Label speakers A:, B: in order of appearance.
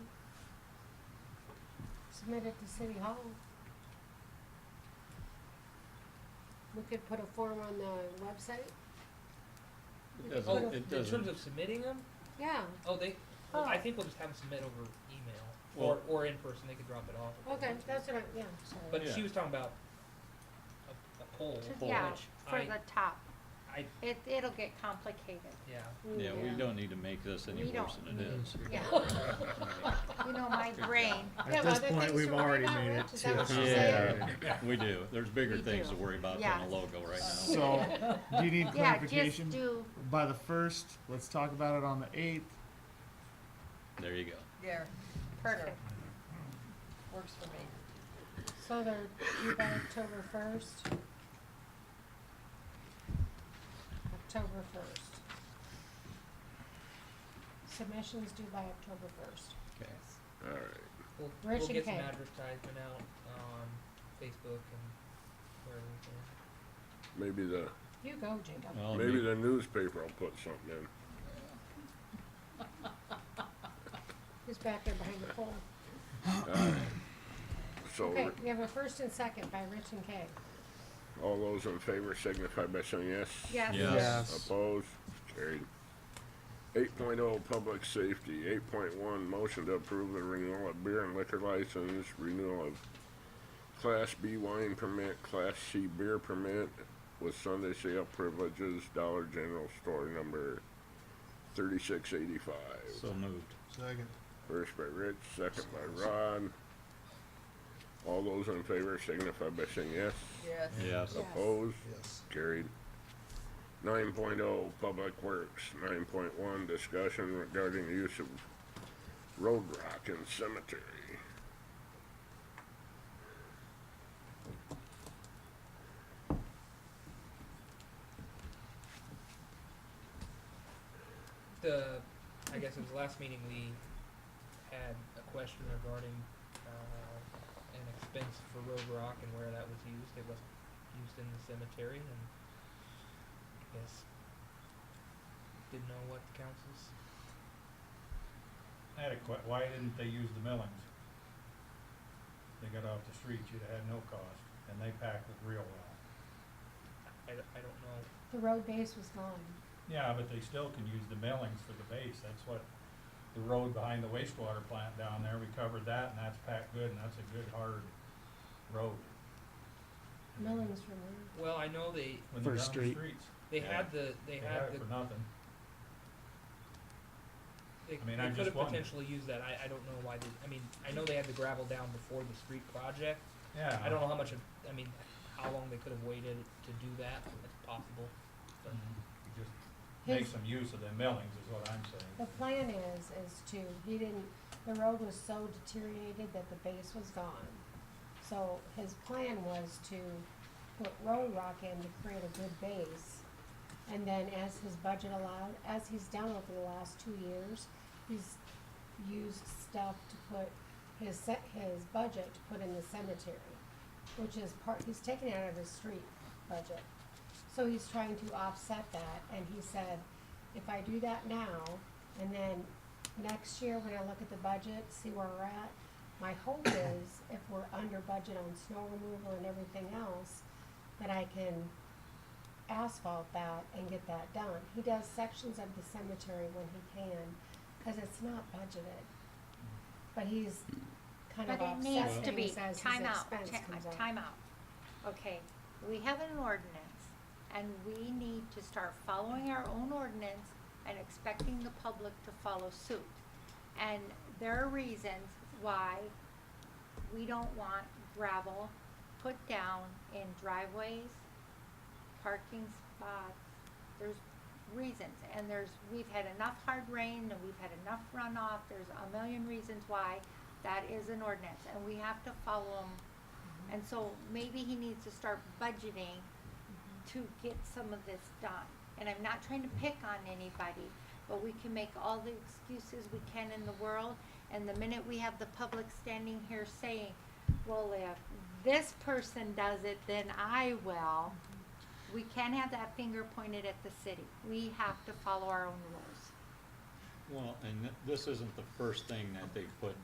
A: submit it to City Hall. We could put a form on the website,
B: It
C: Oh,
B: doesn't, it
C: in terms
B: doesn't,
C: of submitting them,
A: yeah,
C: oh, they, well, I
A: Oh.
C: think we'll just have them submit over email or,
B: Well-
C: or in person, they could drop it off. if they
A: okay,
C: want to.
A: that's what I, yeah,
C: But
B: Yeah.
C: she was talking about a, a poll,
D: To-
C: which
D: yeah, for
C: I,
D: the top.
C: I,
D: It, it'll get complicated.
C: yeah,
A: Mm,
B: yeah, we don't need to make this any
D: We don't.
B: worse than it is.
D: Yeah,
B: I
D: you know, my brain.
A: Yeah, but
E: At this
A: I think
E: point,
A: so
E: we've
A: why
E: already
A: not
E: made it
A: Rich? Is that what
E: to.
A: you're
B: saying?
E: Yeah.
B: mean, We do, there's bigger
D: We
B: things
D: do.
B: to worry about than a
D: Yes.
B: logo right now.
E: So, do you need
D: Yeah, just
E: clarification?
D: do,
E: By the first, let's talk about it on the eighth.
B: There you go.
F: There,
D: perfect.
F: works for me.
A: So they're due by October first? October first. Submissions due by October first.
B: Okay.
C: we'll,
A: Where
C: we'll
A: should
C: get some
A: they?
C: advertisement out on Facebook and wherever we can.
G: Maybe the,
A: You go, Jacob.
B: Well,
G: maybe
B: Oh, maybe-
G: the newspaper will put something in.
A: He's back there behind the pole.
B: Oh,
A: Okay,
G: So,
A: we have a first and second by Rich and Kay.
G: all those in favor signify by saying yes.
D: Yes.
B: Yes.
G: Opposed, carried. Eight oh, public safety, eight point one, motion to approve the renewal of beer and liquor license, renewal of Class B wine permit, Class C beer permit with Sunday sale privileges, Dollar General store number thirty-six eighty-five.
B: So moved.
E: Second.
G: First by Rich, second by Rod. All those in favor signify by saying yes.
F: Yes.
B: Yes.
A: Yeah.
G: Opposed?
E: Yes.
G: Carried. Nine oh, Public Works. Nine point one, discussion regarding the use of road rock in cemetery.
C: the, I guess it was the last meeting, we had a question regarding, uh, an expense for Road Rock and where that was used, it wasn't used in the cemetery, and I guess, didn't know what the council's,
H: I had a que- why didn't they use the millings? They got off the street, you'd have had no cost, and they packed it real well.
C: I, I don't know,
A: The road base was gone.
H: Yeah, but they still can use the millings for the base, that's what, the road behind the wastewater plant down there, we covered that, and that's packed good, and that's a good, hard road.
A: Millings removed.
C: well, I know they,
H: When they're
E: For
H: down the
E: street.
H: streets,
C: they
B: Yeah.
C: had the, they
H: they
C: had
H: had
C: the,
H: it for nothing.
C: they,
H: I mean,
C: they
H: I'm
C: could have
H: just wondering.
C: potentially used that, I, I don't know why they, I mean, I know they had the gravel down before the street project,
H: Yeah.
C: I don't know how much, of I mean, how long they could have waited to do that, it's possible.
H: Mhm. Just make
A: His-
H: some use of the millings is what I'm saying.
A: The plan is, is to, he didn't, the road was so deteriorated that the base was gone. So his plan was to put road rock in to create a good base. And then as his budget allowed, as he's done over the last two years, he's used stuff to put his set, his budget to put in the cemetery, which is part, he's taken it out of his street budget. So he's trying to offset that, and he said, if I do that now, and then next year, when I look at the budget, see where we're at, my hope is, if we're under budget on snow removal and everything else, that I can asphalt that and get that done. He does sections of the cemetery when he can, cause it's not budgeted. But he's kind of
D: But it needs
A: offset
D: to be,
A: things as his
D: time out,
A: expense
D: ti- uh,
A: comes up.
D: time out. Okay, we have an ordinance and we need to start following our own ordinance and expecting the public to follow suit. And there are reasons why we don't want gravel put down in driveways, parking spots. There's reasons, and there's, we've had enough hard rain, and we've had enough runoff, there's a million reasons why that is an ordinance, and we have to follow them. And so maybe he needs to start budgeting to get some of this done. And I'm not trying to pick on anybody, but we can make all the excuses we can in the world. And the minute we have the public standing here saying, well, if this person does it, then I will. We can't have that finger pointed at the city. We have to follow our own rules.
B: Well, and th- this isn't the first thing that they put